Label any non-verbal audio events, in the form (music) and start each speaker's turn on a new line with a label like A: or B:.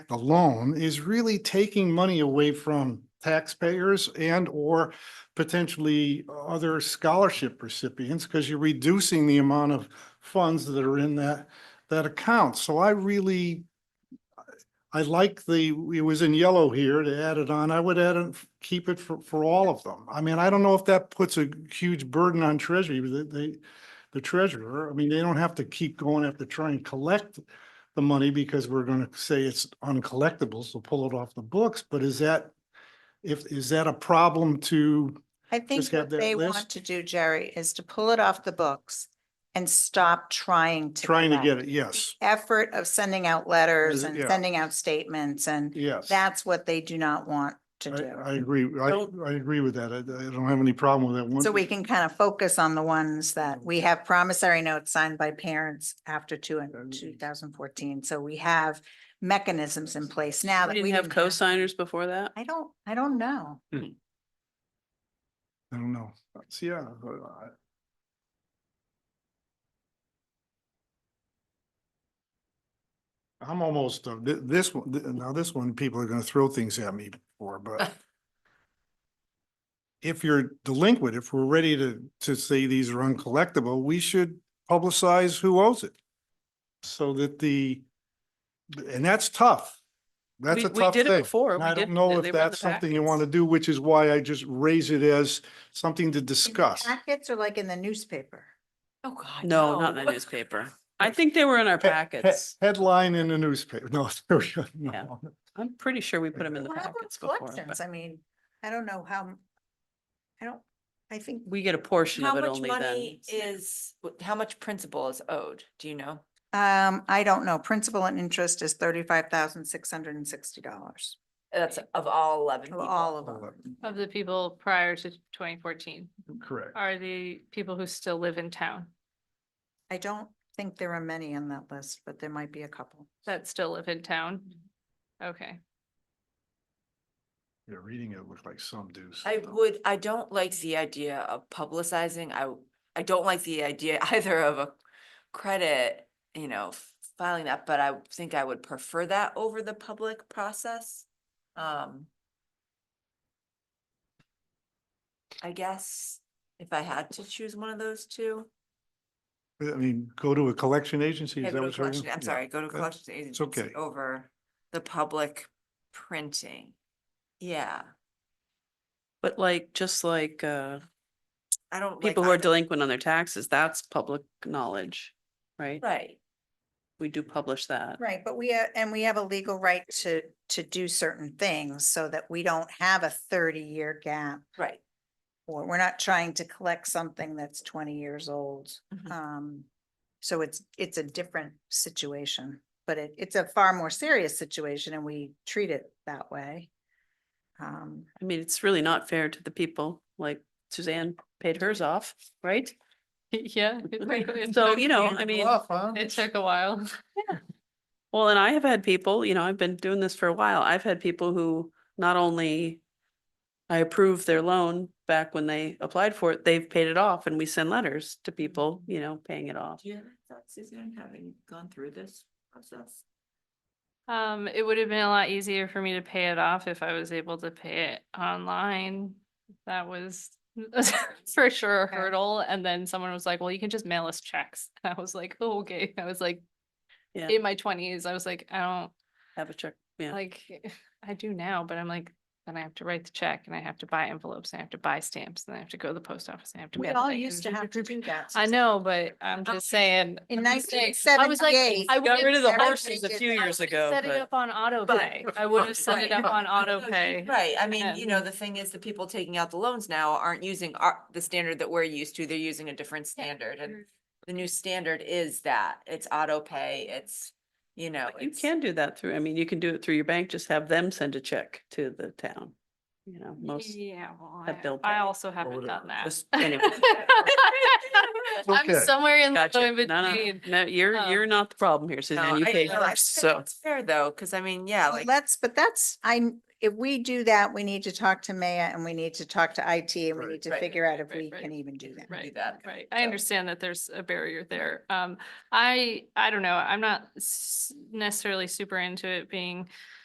A: the loan is really taking money away from taxpayers and or potentially other scholarship recipients because you're reducing the amount of funds that are in that, that account. So I really, I like the, it was in yellow here to add it on. I would add it, keep it for, for all of them. I mean, I don't know if that puts a huge burden on treasury, but they- they, the treasurer. I mean, they don't have to keep going after trying to collect the money because we're going to say it's uncollectible, so pull it off the books. But is that, if, is that a problem to,
B: I think
A: have
B: what
A: that
B: they want
A: list.
B: to do, Jerry, is to pull it off the books and stop trying to.
A: trying to get
B: collect.
A: it? Yes,
B: The Effort of sending out letters and
A: Yeah.
B: sending out statements and
A: yes.
B: that's what they do not want to
A: I, I
B: do.
A: agree. I,
B: Don't-
A: I agree with that. I, I don't have any problem with that one.
B: So we can kind of focus on the ones that we have promissory notes signed by parents after two and
A: And-
B: two thousand fourteen. So we have mechanisms in place now that
C: We
B: we
C: didn't have cosigners before that?
B: I don't, I don't know.
A: I don't know. So, yeah. I- I- I'm almost, uh, thi- this one, thi- now this one, people are gonna throw things at me for,
C: (laughs)
A: but if you're delinquent, if we're ready to, to say these are uncollectible, we should publicize who owes it. So that the, and that's tough. That's
C: We-
A: a tough
C: We did it
A: thing.
C: before.
A: And
C: We
A: I
C: did-
A: don't know
C: they were
A: if
C: in the
A: that's something you want to
C: packets.
A: do, which is why I just raise it as something to discuss.
B: Packets are like in the newspaper.
D: Oh, God.
C: No, not in the
D: (laughs)
C: newspaper. I think they were in our
A: He- he-
C: packets.
A: Headline in the newspaper. No, (laughs) there we go. No.
C: Yeah. I'm pretty sure we put them in the
B: What about
C: packets before.
B: collections?
C: but
B: I mean, I don't know how, m- I don't, I think,
C: We get a portion
D: How
C: of it
D: much
C: only then.
D: money is, wh- how much principal is owed? Do you know?
B: um, I don't know. Principal and interest is thirty-five thousand, six hundred and sixty dollars.
D: That's of all eleven people.
B: All of
A: All
B: them.
E: Of the people prior to twenty fourteen
A: Correct.
E: are the people who still live in town,
B: I don't think there are many on that list, but there might be a couple.
E: that still live in town. Okay,
A: You're reading it looked like some do. some
D: I
A: don't.
D: would, I don't like the idea of publicizing. I, w- I don't like the idea (laughs) either of a credit, you know, f- filing that, but I think I would prefer that over the public process. Um. I guess if I had to choose one of those two.
A: I mean, go to a collection agency.
D: Yeah,
A: is that
D: go to
A: what you're
D: collection-
A: doing?
D: I'm
A: Yeah.
D: sorry, go to
A: That-
D: collections
A: okay.
D: agency over the public printing. Yeah,
C: But like, just like, uh,
D: I don't. like
C: people who are
D: either-
C: delinquent on their taxes, that's public knowledge, right?
D: Right,
C: We do publish that.
B: Right, but we, ha- and we have a legal right to, to do certain things so that we don't have a thirty-year gap.
D: right.
B: Or we're not trying to collect something that's twenty years old.
C: Mm-hmm.
D: Mhm.
B: Um, so it's, it's a different situation, but it, it's a far more serious situation and we treat it that way. Um,
C: I mean, it's really not fair to the people, like Suzanne paid hers off, right?
E: (laughs) yeah. it (laughs) took- it
C: So,
E: took-
C: you know, I
E: it-
C: mean,
A: Bluff, huh?
E: It took a while. (laughs)
C: Well, and I have had people, you know, I've been doing this for a while. I've had people who not only I approved their loan back when they applied for it, they've paid it off and we send letters to people, you know, paying it off.
D: Do you have any thoughts, Suzanne, having gone through this process?
E: Um, it would have been a lot easier for me to pay it off if I was able to pay it online. That was (laughs) for sure a
B: Okay.
E: hurdle. And then someone was like, well, you can just mail us checks. (laughs) And I was like, oh, okay. I was like,
C: Yeah.
E: in my twenties, I was like, I don't,
C: Have a check, yeah.
E: Like, eh, (laughs) I do now, but I'm like, then I have to write the check and I have to buy envelopes and I have to buy stamps and I have to go to the post office and I have to.
B: we
E: mail it
B: all
E: back and
B: used to have to do that.
E: I know, but I'm just saying.
B: In
E: I'm just saying, I was like,
B: 1978,
E: I
C: Got
E: would've
C: rid of the
E: set it-
C: horses a
B: did
C: few
B: that.
C: years
E: I would've
C: ago,
E: Set it
C: but-
E: up on auto
D: but-
E: pay. I would have set it
D: Right.
E: up on auto
D: No,
E: pay.
D: Right, I mean, you
E: and-
D: know, the thing is, the people taking out the loans now aren't using our, the standard that we're used to, they're using a different standard, and the new standard is that, it's auto pay, it's, you know.
C: But You
D: it's-
C: can do that through, I mean, you can do it through your bank, just have them send a check to the town. You know, most,
E: Yeah, well,
C: that bill
E: I- I
C: pay
E: also
A: or
E: haven't
A: whatever.
E: done that.
C: Just- anyway.
A: Okay.
E: (laughs) I'm somewhere in the
C: gotcha.
E: in
C: No, no,
E: between.
C: no, you're,
E: Um,
C: you're not the problem here,
D: No,
C: Suzanne. You
D: I
C: paid
D: know,
C: yours,
D: I think
C: so.
D: It's fair though, cause I mean, yeah,
B: Well,
D: like,
B: Let's, but that's, I'm, if we do that, we need to talk to Maya and we need to talk to IT and we
A: Right.
B: need to
D: Right.
B: figure out if
E: Right,
B: we
E: right.
B: can even do that.
E: Right,
D: that.
E: right. I
D: So-
E: understand that there's a barrier there. Um, I, I don't know. I'm not s- necessarily super into it being